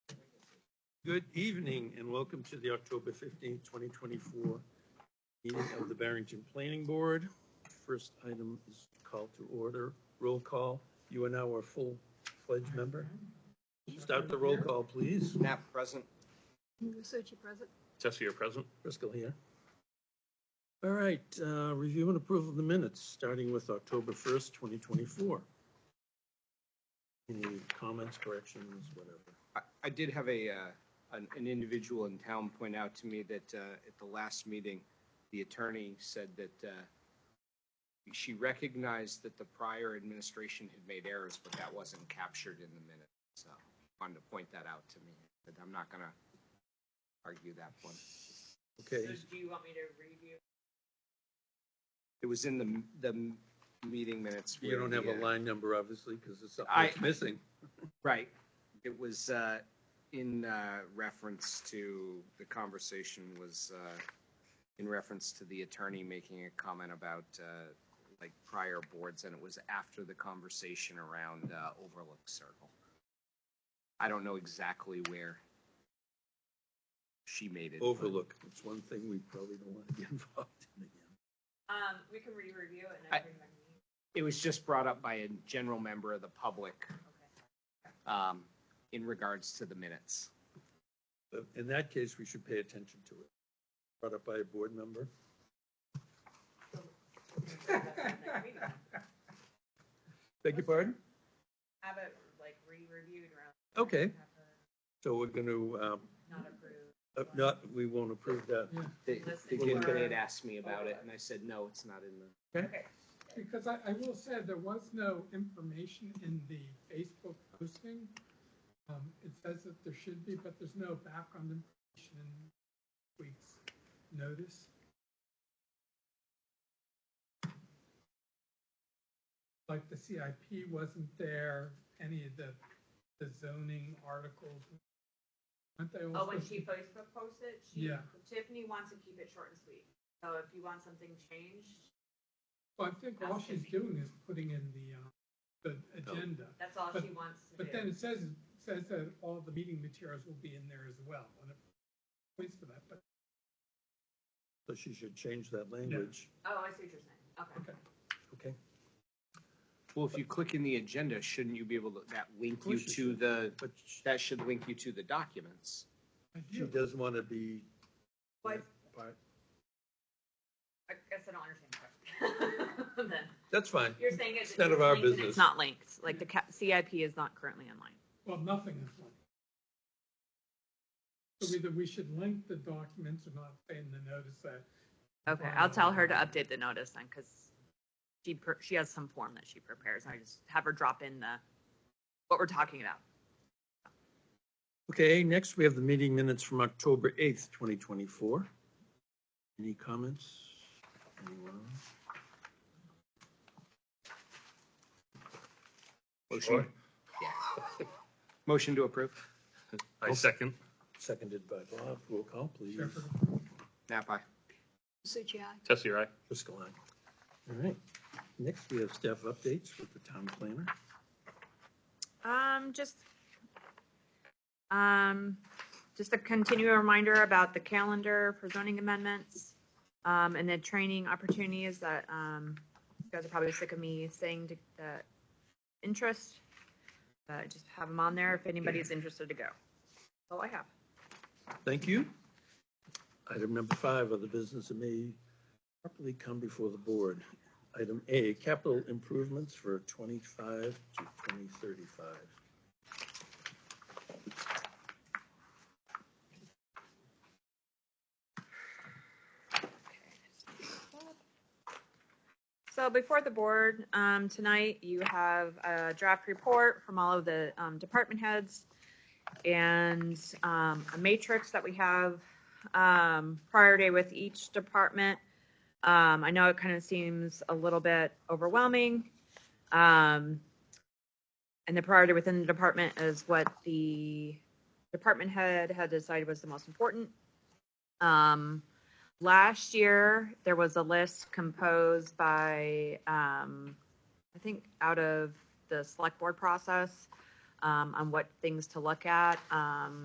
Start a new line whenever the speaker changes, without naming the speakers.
Good evening and welcome to the October 15th, 2024 meeting of the Barrington Planning Board. First item is call to order, roll call. You are now our full-fledged member. Start the roll call, please.
Knapp present.
Suchi present.
Tessie, you present.
Driscoll here. All right, uh, review and approval of the minutes, starting with October 1st, 2024. Any comments, corrections, whatever?
I- I did have a, uh, an an individual in town point out to me that uh, at the last meeting, the attorney said that uh, she recognized that the prior administration had made errors, but that wasn't captured in the minute. So wanted to point that out to me, but I'm not going to argue that one.
Okay,
So do you want me to review?
It was in the, the meeting minutes.
you
where
don't have
the,
a
uh,
line number, obviously, because it's something
I-
that's missing.
Right. It was uh, in uh, reference to, the conversation was uh, in reference to the attorney making a comment about uh, like prior boards, and it was after the conversation around uh, Overlook Circle. I don't know exactly where she made it. but-
overlook. It's one thing we probably don't want to get involved in again.
Um, we can re-review it
I-
and everyone.
It was just brought up by a general member of the public um, in regards to the minutes.
But in that case, we should pay attention to it. Brought up by a board member. Beg your pardon?
Have it like re-reviewed around.
Okay.
Have her
So we're going to,
Not approved.
not, we won't approve that.
They,
Unless
they
it's
did,
for-
they had asked me about it, and I said, no, it's not in the.
Okay,
Because I, I will say, there was no information in the Facebook posting. Um, it says that there should be, but there's no background information in week's notice. Like the CIP wasn't there, any of the, the zoning articles. Aren't they
oh,
all?
when
supposed
she
to-
Facebook posts it, she,
Yeah.
Tiffany wants to keep it short and sweet. So if you want something changed,
Well, I think all she's doing is putting in the, um, the agenda.
that's all
But-
she wants to do.
But then it says, says that all the meeting materials will be in there as well, and it points for that, but,
So she should change that language.
Oh, I see what you're saying. Okay.
okay.
Okay.
Well, if you click in the agenda, shouldn't you be able to, that link
Of
you
course you
to the,
But sh-
that should link you to the documents?
I
she
do.
doesn't want to be.
But
part-
I guess I don't understand the question. Then,
That's fine.
you're saying it's.
It's none of our
linked and
business.
It's not linked, like the ca- CIP is not currently online.
Well, nothing is linked. So either we should link the documents or not say in the notice that.
Okay, I'll tell her to update the notice then, because she, per- she has some form that she prepares, and I just have her drop in the, what we're talking about.
Okay, next we have the meeting minutes from October 8th, 2024. Any comments? Anyone?
Motion, motion to approve?
I second.
Oh, Seconded by Bob. Roll call, please.
Shepherd,
Nap aye.
Suchi, aye.
Tessie, I.
Driscoll, aye. All right. Next, we have staff updates with the town planner.
Um, just, um, just a continual reminder about the calendar for zoning amendments, um, and the training opportunities that, um, you guys are probably sick of me saying to, that interest. Uh, just have them on there if anybody's interested to go. All I have.
Thank you. Item number five, other business that may properly come before the board. Item A, capital improvements for 25 to 2035.
So before the board, um, tonight, you have a draft report from all of the, um, department heads and, um, a matrix that we have, um, prior day with each department. Um, I know it kind of seems a little bit overwhelming. Um, and the priority within the department is what the department head had decided was the most important. Um, last year there was a list composed by um, i think out of the select board process um, on what things to look at um,